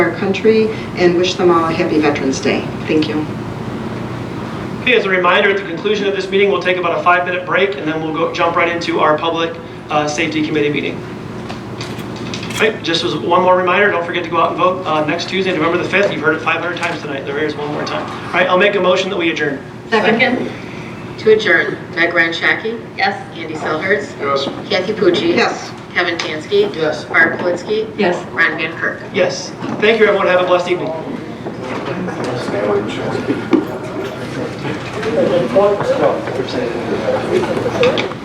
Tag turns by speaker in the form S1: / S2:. S1: our country and wish them all a happy Veterans Day. Thank you.
S2: Okay, as a reminder, at the conclusion of this meeting, we'll take about a five-minute break, and then we'll go, jump right into our Public uh, Safety Committee meeting. Right, just as one more reminder, don't forget to go out and vote uh, next Tuesday, November the 5th. You've heard it 500 times tonight, there it is one more time. All right, I'll make a motion that we adjourn.
S3: Second?
S4: To adjourn, Meg Ryan Shaki,
S3: Yes.
S4: Andy Selhertz,
S5: Yes.
S4: Kathy Pucci.
S1: Yes.
S4: Kevin Tansky.
S5: Yes.
S4: Barb Politzky.
S3: Yes.
S4: Ron Van Kirk.
S2: Yes, thank you, everyone, have a blessed evening.